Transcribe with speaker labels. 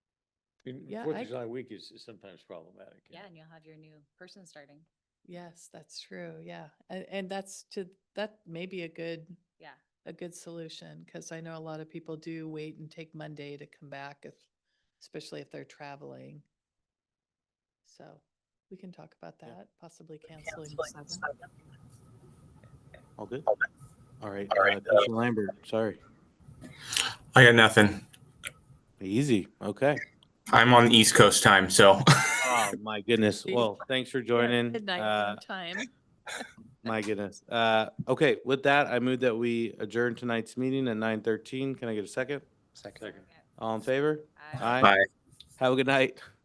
Speaker 1: In-
Speaker 2: Yeah,
Speaker 1: Fourth
Speaker 2: I-
Speaker 1: of July week is is sometimes problematic.
Speaker 3: Yeah, and you'll have your new person starting.
Speaker 2: Yes, that's true. Yeah. And, and that's to, that may be a good,
Speaker 3: Yeah.
Speaker 2: a good solution because I know a lot of people do wait and take Monday to come back if, especially if they're traveling. So we can talk about
Speaker 4: Yeah.
Speaker 2: that, possibly canceling. the seventh.
Speaker 4: All good? All right.
Speaker 5: All right,
Speaker 4: uh, Commissioner Lambert, sorry.
Speaker 5: I got nothing.
Speaker 4: Easy. Okay.
Speaker 5: I'm on East Coast time, so
Speaker 4: Oh, my goodness.
Speaker 2: Jeez.
Speaker 4: Well, thanks for
Speaker 2: Yeah,
Speaker 4: joining.
Speaker 2: Midnight
Speaker 4: Uh,
Speaker 2: room time.
Speaker 4: My goodness. Uh, okay, with that, I move that we adjourn tonight's meeting at nine thirteen. Can I get a second?
Speaker 1: Second.
Speaker 4: All in favor?
Speaker 3: I-
Speaker 4: Aye.
Speaker 5: Aye.
Speaker 4: Have a good night.